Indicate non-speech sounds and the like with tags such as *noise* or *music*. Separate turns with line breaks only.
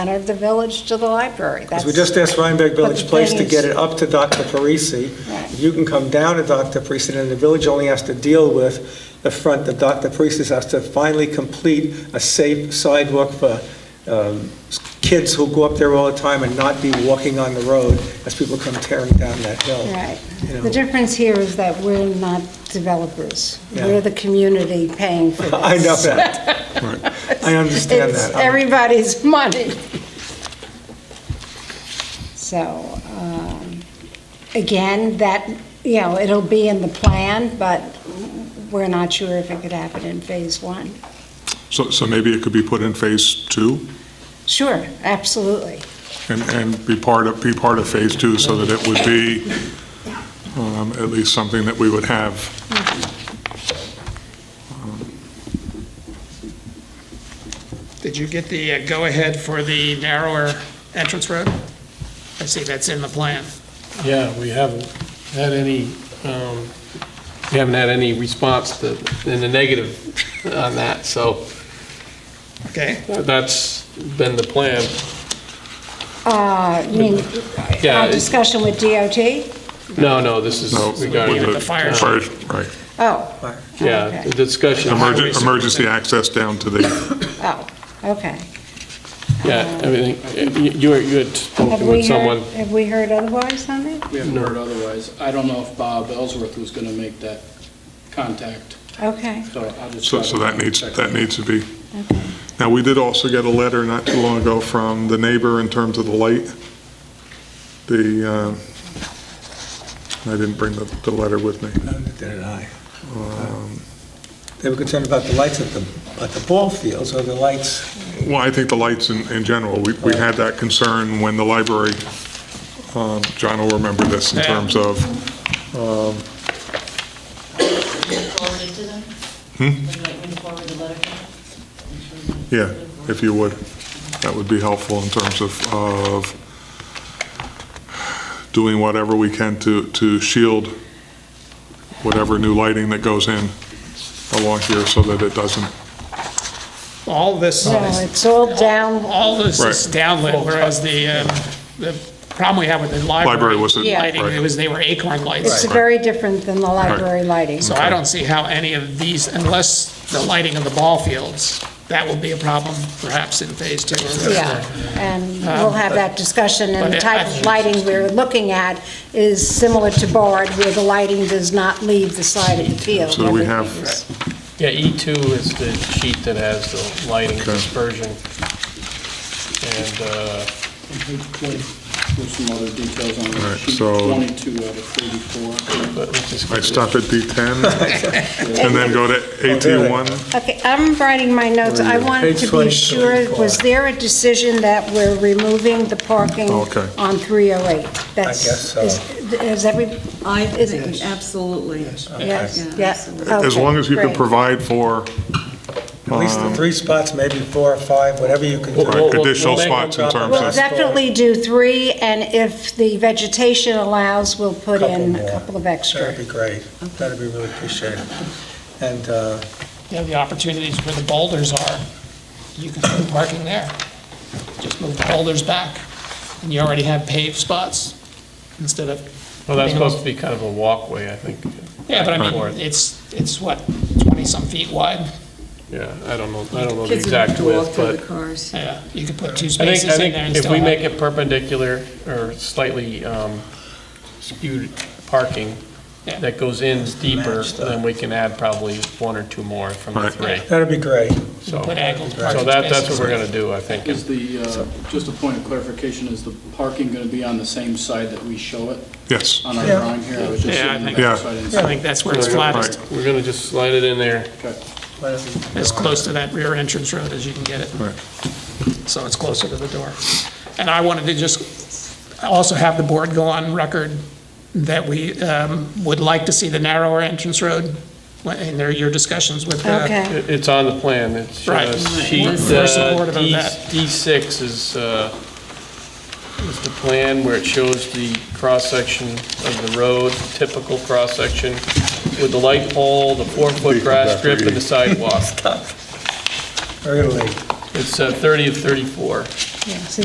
center of the village to the library.
Because we
That's-
just asked Rhinebeck Village
But the
Place to
thing is-
get it up to Dr. Parisi.
Right.
You can come down to Dr. Parisi, and the village only has to deal with the front, that Dr. Parisi has to finally complete a safe sidewalk for um, s- kids who go up there all the time and not be walking on the road as people come tearing down that hill.
Right.
you know.
The difference here is that we're not developers.
Yeah.
We're the community paying for this.
*laughs* I know that. Right. I understand
It's
that. I'm-
everybody's money. So, um, again, that, you know, it'll be in the plan, but we're not sure if it could happen in phase one.
So, so maybe it could be put in phase two
Sure, absolutely.
and, and be part of, be part of phase two so that it would be um, at least something that we would have.
Did you get the uh, go-ahead for the narrower entrance road? I see that's in the plan.
Yeah, we haven't had any, um, we haven't had any response to, in the negative on that, so
Okay,
that's been the plan.
Uh, You mean,
Yeah,
our
it-
discussion with DOT?
No, no, this is
No,
regarding,
the fire-
Fire- Right.
Oh.
yeah,
okay.
the discussion.
Emergen- Emergency access down to the,
Oh, okay.
Yeah, everything, you- you were- you had
Have
spoken
we
with
heard,
someone.
have we heard otherwise on it?
We haven't heard otherwise. I don't know if Bob Ellsworth was going to make that contact,
Okay,
so I'll just.
so, so that needs,
Check.
that needs to be. Now, we did also get a letter not too long ago from the neighbor in terms of the light. The, um, I didn't bring the, the letter with me.
Neither did I. Um, They were concerned about the lights at the, at the ball fields, or the lights,
Well, I think the lights in, in general, we, we had that concern when the library, um, John will remember this in
Yeah.
terms of, um,
forwarded to them?
Hmm?
Would you like me to forward the letter? to them?
yeah, if you would, that would be helpful in terms of, of doing whatever we can to, to shield whatever new lighting that goes in along here so that it doesn't,
all this,
well, it's all down,
all this is
Right.
downlit, whereas the, um, the problem we have with the library.
Library wasn't-
Yeah.
Lighting,
right.
it was, they were acorn
it's
lights.
very different than the library lighting.
So I don't see how any of these, unless the lighting of the ball fields, that will be a problem perhaps in phase two. or whatever.
Yeah, and we'll have that discussion, and the
but
type of lighting we're looking at is similar to Bard, where the lighting does not leave the side of the field.
So do we have-
Everything is-
Yeah, E2 is the sheet that has the lighting
Okay.
dispersion. And, uh,
There's some other details on
All
the
right,
sheet,
so-
22 out of 34.
but let's just.
I stop at D10 and then go to AT1.
Okay, I'm writing my notes, I wanted
Page
to be
20,
sure, was there a decision that we're removing the parking
Okay.
on 308? That's-
guess so.
is- Is every,
I think, absolutely.
yes,
Yeah,
yes.
absolutely.
As long as you can
okay, great.
provide for
at least
Um,
the three spots, maybe four or five, whatever you can do.
Well, well,
additional
we'll make
spots in
them-
terms
We'll
of,
definitely do three, and if the vegetation allows, we'll put
Couple
in
more.
a couple of
That'd
extra.
be great. That'd be really appreciated. And, uh,
You know, the opportunities where the boulders are, you can put parking there. Just move the boulders back, and you already have paved spots instead of,
Well, that's supposed to be kind of a walkway, I think.
yeah, but I
Right.
mean, it's, it's what, 20-some feet wide?
Yeah, I don't know, I don't know the
Kids have
exact
to walk
width,
through
but
the cars.
Yeah, you could put two
I think, I
spaces in
think
there and
if
still
we
have
make it perpendicular or slightly um, skewed parking,
Yeah.
that goes in deeper,
Matched up.
then we can add probably one or two more from the
Right.
three.
that'd be great.
You
So,
could put angled parking
so that, that's what we're
spaces.
gonna do, I think.
Is the, uh, just a point of clarification, is the parking going to be on the same side that we show it
yes,
on our
Yeah.
drawing here? I was just
Yeah, I
sitting in
think-
the
Yeah.
backside and
I think that's where it's flattest,
We're gonna just slide it in there.
as close to that rear entrance road as you can get it.
Right.
So it's closer to the door. And I wanted to just also have the board go on record that we um, would like to see the narrower entrance road in their, your discussions with. uh,
Okay.
It- It's on the plan, it's uh,
Right. Right.
sheet,
We're- we're supportive
uh,
of
D-
that.
D6 is, uh, is the plan where it shows the cross-section of the road, typical cross-section, with the light pole, the four-foot grass strip, and the sidewalk.
We're gonna leave.
It's uh, 30 of 34.
yeah, so